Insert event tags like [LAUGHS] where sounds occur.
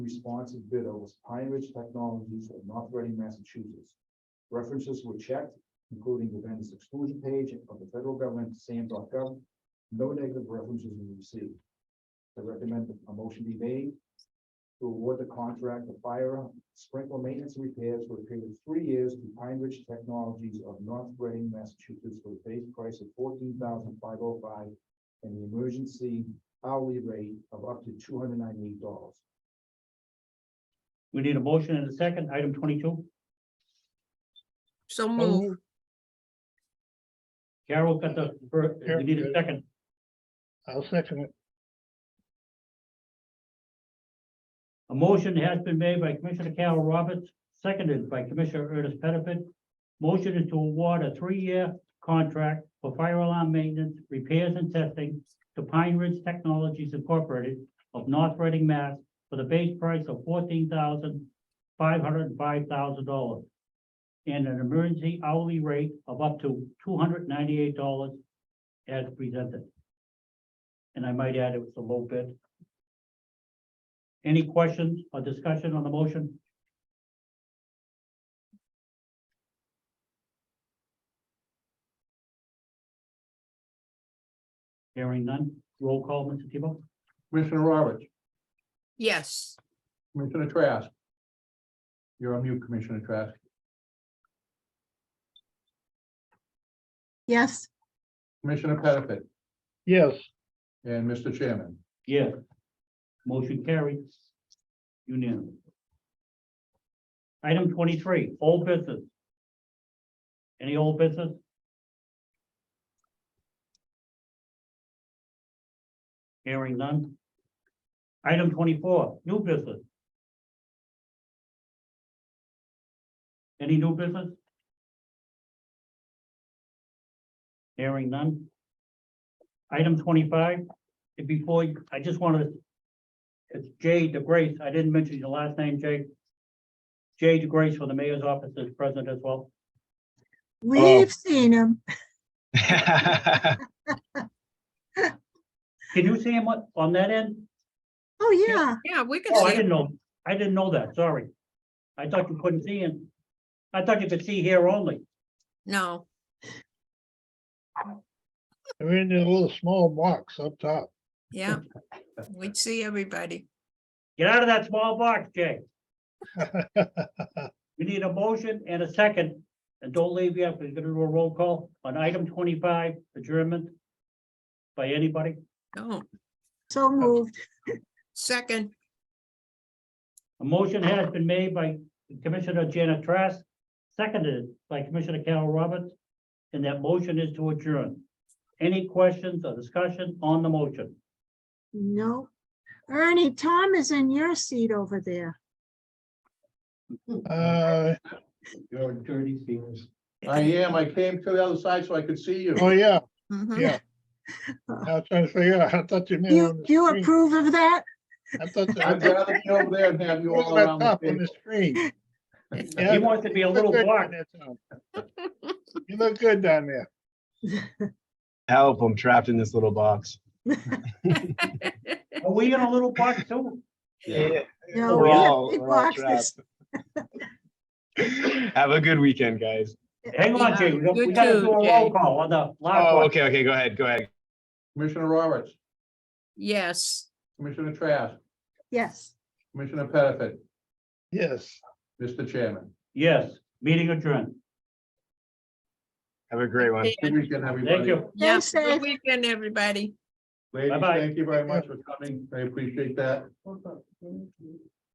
responsive bidder was Pine Ridge Technologies of North Reading, Massachusetts. References were checked, including the vendor's exclusion page of the federal government, sam.gov. No negative references were received. I recommend that a motion be made to award the contract of fire sprinkler maintenance and repairs for a period of three years to Pine Ridge Technologies of North Reading, Massachusetts for the base price of $14,505 and the emergency hourly rate of up to two hundred ninety-eight dollars. We need a motion and a second, item twenty-two. So move, Carol got the first, we need a second. I'll second it. A motion has been made by Commissioner Carol Roberts, seconded by Commissioner Ernest Pettifat. Motion is to award a three-year contract for fire alarm maintenance, repairs and testing to Pine Ridge Technologies Incorporated of North Reading, Mass. for the base price of fourteen thousand five hundred and five thousand dollars and an emergency hourly rate of up to two hundred ninety-eight dollars as presented. And I might add, it was a low bid. Any questions or discussion on the motion? Hearing none, roll call, Mr. Tebow? Commissioner Roberts, yes, Commissioner Trask. You're on mute, Commissioner Trask. Yes, Commissioner Pettifat Yes, and Mr. Chairman. Yes. Motion carried. Unanimous. Item twenty-three, old business. Any old business? Hearing none. Item twenty-four, new business. Any new business? Hearing none. Item twenty-five, and before, you- I just wanted, it's Jay DeGrace, I didn't mention your last name, Jay. Jay DeGrace for the mayor's office is present as well. we've seen him. [LAUGHS] Can you see him on, on that end? Oh, yeah. yeah, we could Oh, I see, didn't know, I didn't know that, sorry. I thought you couldn't see him. I thought you could see here only. no, we're in a little small box up top. yeah. We'd see everybody. Get out of that small box, Jay. We need a motion and a second, and don't leave yet, we're gonna do a roll call on item twenty-five, adjournment. By anybody? No, So moved. Oh, second, A motion has been made by Commissioner Janet Trask, seconded by Commissioner Carol Roberts, and that motion is to adjourn. Any questions or discussion on the motion? No. Ernie, Tom is in your seat over there. Uh, Your dirty feelings. I am, I came to the other side so I could see you. oh, yeah, mhm, Yeah. I was trying to figure out, I thought you meant on You, the you screen. approve of that? I thought. you I'd meant rather be over there than have you all up around the top On the table. screen. He Yeah, wants to be a you look little good block. down there, Tom. You look good down there. Help, I'm trapped in this little box. Are we in a little box too? No, We're we have all, big we're all boxes. trapped. [LAUGHS] Have a good weekend, guys. Hang on, Jay, we You gotta too, do a Jay. roll call on the last Oh, one. okay, okay, go ahead, go ahead. Commissioner Roberts, yes. Commissioner Trask, Yes. Commissioner Pettifat, Yes. Mr. Chairman. Yes, meeting adjourned. Have a great one. Good weekend, everybody. Thank you. Yeah, good safe. weekend, everybody. Ladies, Bye-bye. thank you very much for coming. I appreciate that.